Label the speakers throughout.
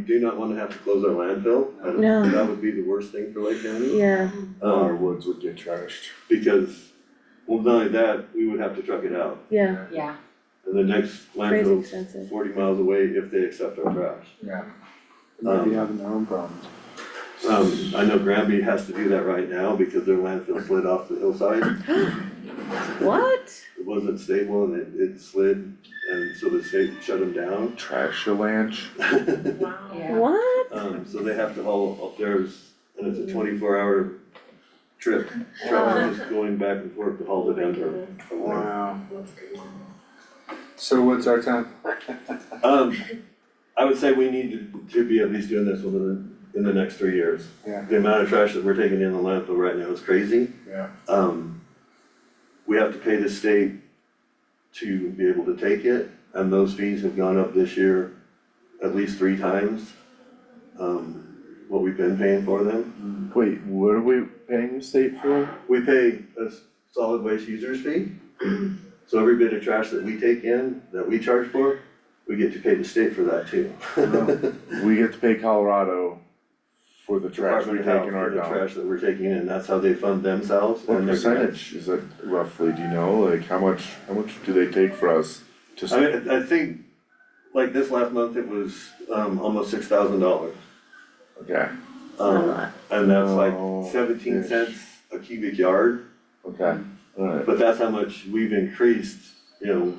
Speaker 1: do not wanna have to close our landfill. I don't-
Speaker 2: No.
Speaker 1: That would be the worst thing for Lake County.
Speaker 2: yeah,
Speaker 3: Our
Speaker 1: Um,
Speaker 3: woods would get trashed.
Speaker 1: because, well, not only that, we would have to truck it out.
Speaker 2: yeah,
Speaker 4: yeah,
Speaker 1: And the next
Speaker 2: crazy
Speaker 1: landfill's
Speaker 2: expensive.
Speaker 1: forty miles away if they accept our trash.
Speaker 3: Yeah.
Speaker 1: Um,
Speaker 3: Maybe having their own problems.
Speaker 1: Um, I know Granby has to do that right now because their landfill slid off the hillside.
Speaker 2: What?
Speaker 1: It wasn't stable and it, it slid, and so the state shut them down.
Speaker 3: Trash avalanche.
Speaker 4: yeah.
Speaker 2: What?
Speaker 1: Um, so they have to haul up theirs, and it's a twenty-four hour trip, travel just going back and forth to haul to Denver. from there.
Speaker 3: Wow. So what's our time?
Speaker 1: Um, I would say we need to, to be at least doing this within, the- in the next three years.
Speaker 3: Yeah.
Speaker 1: The amount of trash that we're taking in the landfill right now is crazy.
Speaker 3: Yeah.
Speaker 1: Um, we have to pay the state to be able to take it, and those fees have gone up this year at least three times, um, what we've been paying for them.
Speaker 5: Wait, what are we paying the state for?
Speaker 1: We pay a s- solid waste users fee, so every bit of trash that we take in, that we charge for, we get to pay the state for that too.
Speaker 5: We get to pay Colorado for the trash
Speaker 1: Department
Speaker 5: we take
Speaker 1: of Health
Speaker 5: in
Speaker 1: for
Speaker 5: our
Speaker 1: the
Speaker 5: dump.
Speaker 1: trash that we're taking in, that's how they fund themselves
Speaker 5: What
Speaker 1: and their grants.
Speaker 5: percentage is that roughly, do you know, like how much, how much do they take for us? Just,
Speaker 1: I mean, I I think, like this last month, it was um almost six thousand dollars. Um,
Speaker 5: okay,
Speaker 1: Oh.
Speaker 2: Not a lot.
Speaker 1: And that's like
Speaker 5: Oh,
Speaker 1: seventeen
Speaker 5: ish.
Speaker 1: cents a cubic yard,
Speaker 5: okay, alright,
Speaker 1: but that's how much we've increased, you know.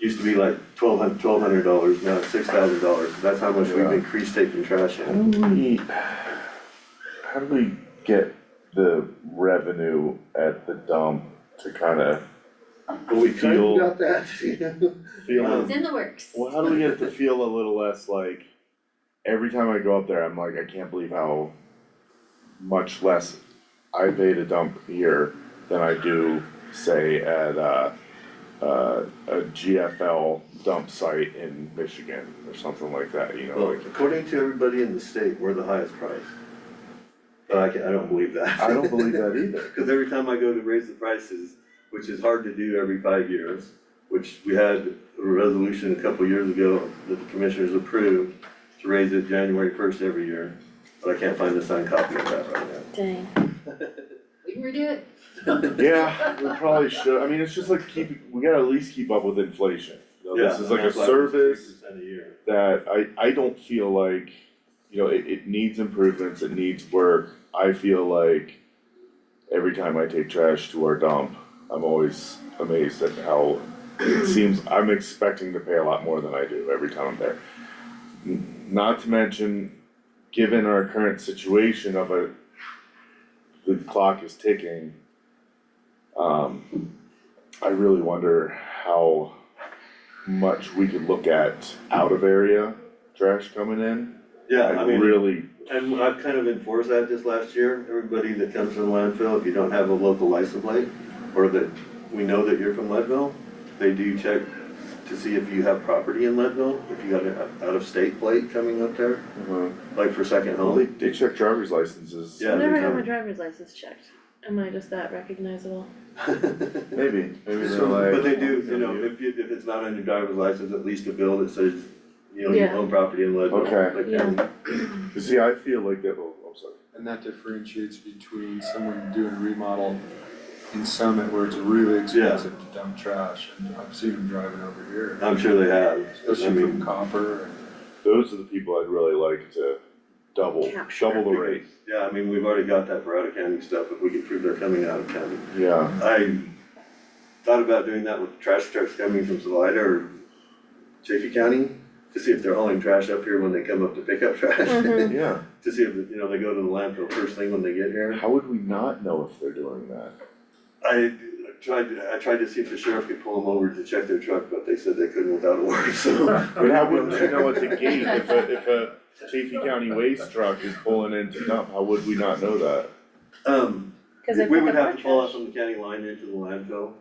Speaker 1: Used to be like twelve hundred, twelve hundred dollars, now it's six thousand dollars, that's how much we've
Speaker 5: Yeah.
Speaker 1: increased taking trash
Speaker 5: how
Speaker 1: in.
Speaker 5: do we, how do we get the revenue at the dump to kinda
Speaker 1: But we um, kind of
Speaker 5: Feel-
Speaker 1: got that, you know?
Speaker 5: feel,
Speaker 4: It's in the works.
Speaker 5: well, how do we get it to feel a little less like, every time I go up there, I'm like, I can't believe how much less I pay to dump here than I do, say, at uh uh, a GFL dump site in Michigan or something like that, you know,
Speaker 1: Well,
Speaker 5: like,
Speaker 1: according to everybody in the state, we're the highest price. But I can, I don't believe that.
Speaker 5: I don't believe that either.
Speaker 1: Cause every time I go to raise the prices, which is hard to do every five years, which we had a resolution a couple years ago that the commissioners approved to raise it January first every year, but I can't find a signed copy of that right now.
Speaker 2: Dang.
Speaker 4: We can redo it,
Speaker 5: Yeah, we probably should, I mean, it's just like keep, we gotta at least keep up with inflation. You know, This
Speaker 1: Yeah,
Speaker 5: is like
Speaker 1: and
Speaker 5: a
Speaker 1: that's why we're
Speaker 5: service
Speaker 1: 3% a year.
Speaker 5: that I, I don't feel like, you know, it, it needs improvements, it needs work. I feel like every time I take trash to our dump, I'm always amazed at how it seems, I'm expecting to pay a lot more than I do every time I'm there. N- Not to mention, given our current situation of a, the clock is ticking, um, I really wonder how much we could look at out of area trash coming in.
Speaker 1: Yeah,
Speaker 5: I
Speaker 1: I mean,
Speaker 5: really,
Speaker 1: and I've kind of enforced that this last year, everybody that comes from landfill, if you don't have a local license plate, or that we know that you're from Leadville, they do check to see if you have property in Leadville, if you got an out-of-state plate coming up there.
Speaker 5: uh,
Speaker 1: like for second
Speaker 5: well, they,
Speaker 1: home.
Speaker 5: they check driver's licenses.
Speaker 1: Yeah,
Speaker 2: I've
Speaker 1: they
Speaker 2: never had
Speaker 1: do.
Speaker 2: my driver's license checked. Am I just that recognizable?
Speaker 1: But
Speaker 5: Maybe, maybe they're
Speaker 3: So,
Speaker 5: like.
Speaker 1: they do, you know, if you, if it's not on your driver's license, at least a bill that says, you know, you
Speaker 2: Yeah.
Speaker 1: own property in Leadville.
Speaker 5: Okay.
Speaker 1: like,
Speaker 2: Yeah.
Speaker 1: um,
Speaker 5: You See, I feel like that, oh, I'm sorry.
Speaker 3: And that differentiates between someone doing remodel in Summit where it's really expensive to dump trash and I've seen them driving over here.
Speaker 1: I'm sure they have, I
Speaker 3: Especially
Speaker 1: mean.
Speaker 3: from copper and.
Speaker 5: Those are the people I'd really like to double,
Speaker 2: Capture.
Speaker 5: double the rate,
Speaker 1: because- Yeah, I mean, we've already got that for out of county stuff, if we can prove they're coming out of county.
Speaker 5: yeah.
Speaker 1: I thought about doing that with trash trucks coming from Salida or Chaffey County, to see if they're hauling trash up here when they come up to pick up trash.
Speaker 2: Mhm.
Speaker 5: Yeah,
Speaker 1: To see if, you know, they go to the landfill first thing when they get here.
Speaker 5: how would we not know if they're doing that?
Speaker 1: I tried, I tried to see if the sheriff could pull them over to check their truck, but they said they couldn't without a warrant, so.
Speaker 5: But how wouldn't you know at the gate if a, if a Chaffey County waste truck is pulling in to dump, how would we not know that?
Speaker 1: Um,
Speaker 2: Cause they
Speaker 1: we
Speaker 2: pick
Speaker 1: would
Speaker 2: up our
Speaker 1: have to follow up
Speaker 2: trash.
Speaker 1: from the county line into the landfill.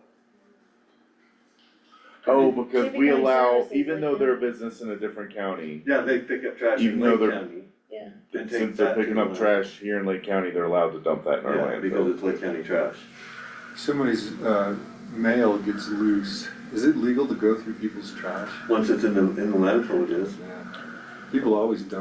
Speaker 5: Oh, because
Speaker 2: Chaffey
Speaker 5: we
Speaker 2: County
Speaker 5: allow,
Speaker 2: services
Speaker 5: even
Speaker 2: like
Speaker 5: though
Speaker 2: that.
Speaker 5: they're a business in a different county,
Speaker 1: Yeah, they pick up trash
Speaker 5: Even
Speaker 1: in
Speaker 5: though
Speaker 1: Lake
Speaker 5: they're-
Speaker 1: County.
Speaker 2: Yeah.
Speaker 1: and take
Speaker 5: since they're
Speaker 1: that to
Speaker 5: picking
Speaker 1: the
Speaker 5: up
Speaker 1: landfill.
Speaker 5: trash here in Lake County, they're allowed to dump that in our
Speaker 1: Yeah, because
Speaker 5: landfill.
Speaker 1: it's Lake County trash.
Speaker 3: Somebody's uh mail gets loose, is it legal to go through people's trash?
Speaker 1: Once it's in the, in the landfill, it is.
Speaker 3: Yeah. People always dump